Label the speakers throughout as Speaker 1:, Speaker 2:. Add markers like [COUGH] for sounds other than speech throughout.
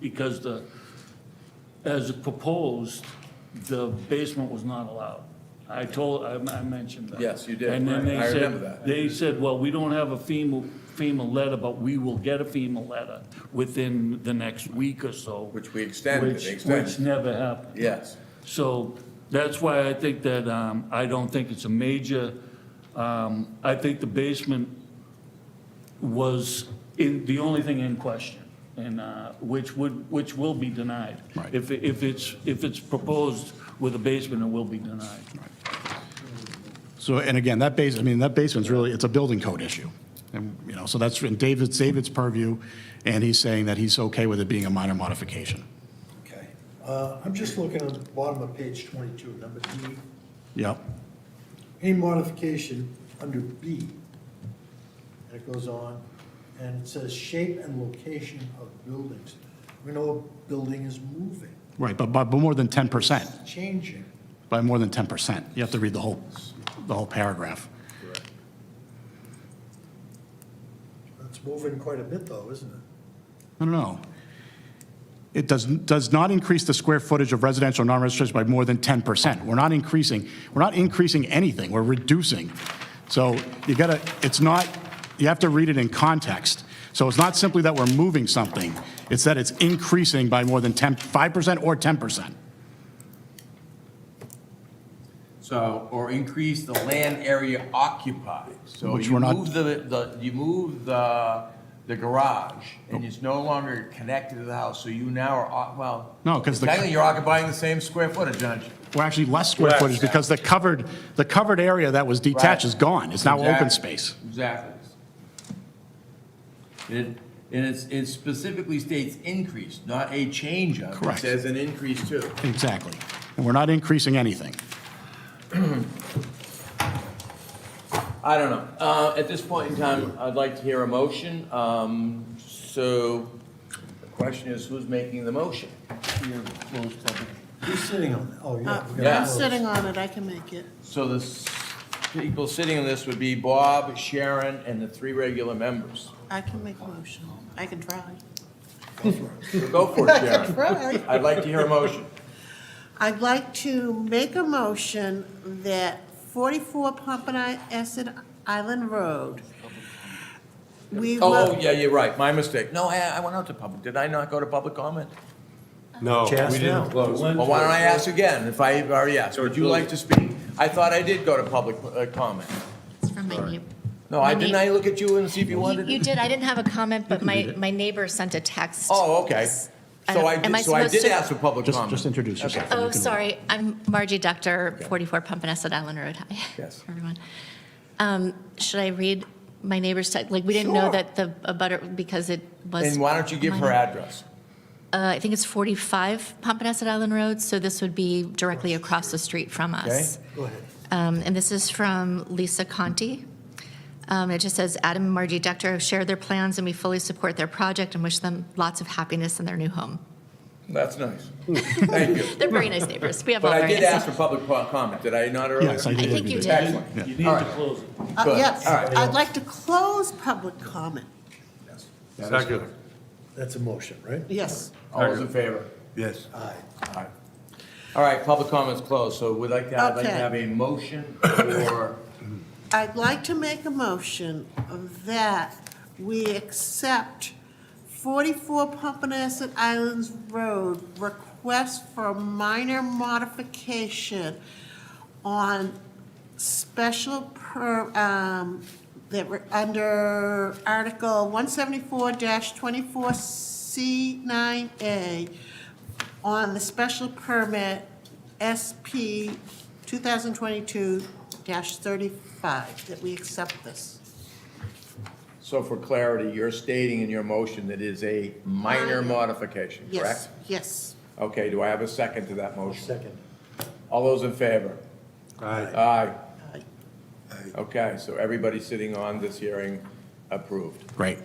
Speaker 1: because the, as proposed, the basement was not allowed. I told, I, I mentioned that.
Speaker 2: Yes, you did.
Speaker 1: And then they
Speaker 2: I remember
Speaker 1: said,
Speaker 2: that.
Speaker 1: they said, well, we don't have a FEMA, FEMA letter, but we will get a FEMA letter within the next week or so.
Speaker 2: Which we extended,
Speaker 1: which-
Speaker 2: they extended.
Speaker 1: Which never happened.
Speaker 2: Yes.
Speaker 1: So that's why I think that, um, I don't think it's a major, um, I think the basement was in, the only thing in question, and, uh, which would, which will be denied.
Speaker 3: Right.
Speaker 1: If, if it's, if it's proposed with a basement, it will be denied.
Speaker 3: So, and again, that base, I mean, that basement's really, it's a building code issue. And, you know, so that's, and David's, David's purview, and he's saying that he's okay with it being a minor modification.
Speaker 4: Okay. Uh, I'm just looking on the bottom of page 22, number D.
Speaker 3: Yep,
Speaker 4: Any modification under B, and it goes on, and it says shape and location of buildings. We know a building is moving,
Speaker 3: right, but, but but more than 10%,
Speaker 4: it's changing.
Speaker 3: by more than 10%. You have to read the whole, the whole paragraph.
Speaker 4: It's moving quite a bit though, isn't it?
Speaker 3: I don't know. It does, does not increase the square footage of residential and non-residential by more than 10%. We're not increasing, we're not increasing anything, we're reducing. So you gotta, it's not, you have to read it in context. So it's not simply that we're moving something, it's that it's increasing by more than 10, 5% or 10%.
Speaker 2: So, or increase the land area occupied. So
Speaker 3: Which
Speaker 2: you
Speaker 3: we're not-
Speaker 2: move the, the, you move the, the garage, and it's no longer connected to the house, so you now are, oc- well.
Speaker 3: No, 'cause the-
Speaker 2: Technically, you're occupying the same square footage, aren't you?
Speaker 3: We're actually less square
Speaker 2: Correct.
Speaker 3: footage because the covered, the covered area that was detached is gone, it's now open
Speaker 2: Exactly.
Speaker 3: space.
Speaker 2: Exactly. It, and it's, it specifically states increase, not a change of.
Speaker 3: Correct.
Speaker 2: It says an increase too.
Speaker 3: Exactly. And we're not increasing anything.
Speaker 2: I don't know. Uh, at this point in time, I'd like to hear a motion. Um, so the question is, who's making the motion?
Speaker 4: Who's sitting on that? Oh, yeah. we got
Speaker 2: Yeah.
Speaker 5: Uh, I'm
Speaker 4: those.
Speaker 5: sitting on it, I can make it.
Speaker 2: So the s- people sitting on this would be Bob, Sharon, and the three regular members.
Speaker 5: I can make a motion. I can try.
Speaker 2: So Go for it,
Speaker 5: I can
Speaker 2: Sharon.
Speaker 5: try.
Speaker 2: I'd like to hear a motion.
Speaker 5: I'd like to make a motion that 44 Pompanesett Island Road, we
Speaker 2: Oh, oh,
Speaker 5: will,
Speaker 2: yeah, you're right. My mistake. No, I, I went out to public. Did I not go to public comment?
Speaker 6: No, we
Speaker 4: Just now.
Speaker 6: didn't close.
Speaker 2: Well, why don't I ask again if I already asked? Would you like to speak? I thought I did go to public uh, comment.
Speaker 7: It's from my neighbor.
Speaker 2: No, I, didn't I look at you and see if you wanted?
Speaker 7: You did, I didn't have a comment, but my, my neighbor sent a text.
Speaker 2: Oh, okay. So I, did-
Speaker 7: Am
Speaker 2: so I
Speaker 7: supposed
Speaker 2: did
Speaker 7: to-
Speaker 2: ask for public
Speaker 3: Just,
Speaker 2: comment.
Speaker 3: just introduce yourself. and you
Speaker 7: Oh,
Speaker 3: can-
Speaker 7: sorry, I'm Margie Doctor, 44 Pompanesett Island Road. Hi,
Speaker 2: Yes.
Speaker 7: [LAUGHS] everyone. Um, Should I read my neighbor's text? Like, we didn't know
Speaker 2: Sure.
Speaker 7: that the, a butter, because it was.
Speaker 2: And why don't you give her
Speaker 7: minor.
Speaker 2: address?
Speaker 7: Uh, I think it's 45 Pompanesett Island Road, so this would be directly across the street from us.
Speaker 4: Go ahead.
Speaker 7: Um, And this is from Lisa Conti. Um, It just says, "Adam and Margie Dector have shared their plans, and we fully support their project and wish them lots of happiness in their new home."
Speaker 2: That's
Speaker 7: [LAUGHS]
Speaker 2: nice. Thank you.
Speaker 7: They're very nice neighbors. We have all
Speaker 2: But I
Speaker 7: very
Speaker 2: did
Speaker 7: nice.
Speaker 2: ask for public po- comment, did I not earlier?
Speaker 3: Yes, I
Speaker 7: I
Speaker 3: did.
Speaker 7: think you did.
Speaker 2: Excellent.
Speaker 1: You need to close it.
Speaker 5: Uh,
Speaker 2: Good.
Speaker 5: yes,
Speaker 2: All right.
Speaker 5: I'd like to close public comment.
Speaker 6: Second.
Speaker 4: That's a motion, right?
Speaker 5: Yes,
Speaker 2: All those in favor?
Speaker 6: Yes.
Speaker 4: Aye.
Speaker 2: Aye. All right, public comment's closed, so we'd like to, I'd like to
Speaker 5: Okay.
Speaker 2: have a motion for,
Speaker 5: I'd like to make a motion that we accept 44 Pompanesett Islands Road request for a minor modification on special per, um, that were under Article 174-24C9A on the special permit SP 2022-35, that we accept this.
Speaker 2: so for clarity, you're stating in your motion that is a minor
Speaker 5: Minor.
Speaker 2: modification, correct?
Speaker 5: Yes, yes.
Speaker 2: Okay, do I have a second to that motion?
Speaker 4: Second.
Speaker 2: All those in favor?
Speaker 6: Aye.
Speaker 2: Aye.
Speaker 5: Aye.
Speaker 2: Okay, so everybody sitting on this hearing approved.
Speaker 3: Great.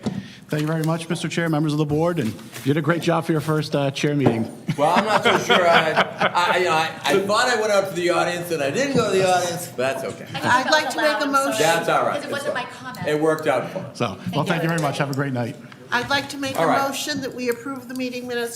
Speaker 3: Thank you very much, Mr. Chair, members of the board, and you did a great job for your first uh, chair meeting.
Speaker 2: Well, I'm not so sure. I, I, you know, I, I thought I went out to the audience and I didn't go to the audience, but that's okay.
Speaker 5: I'd like to make a motion,
Speaker 2: That's all right.
Speaker 7: Because it wasn't my
Speaker 2: It
Speaker 7: comment.
Speaker 2: worked out for us.
Speaker 3: So, well, thank you very much. Have a great night.
Speaker 5: I'd like to make
Speaker 2: All
Speaker 5: a
Speaker 2: right.
Speaker 5: motion that we approve the meeting minutes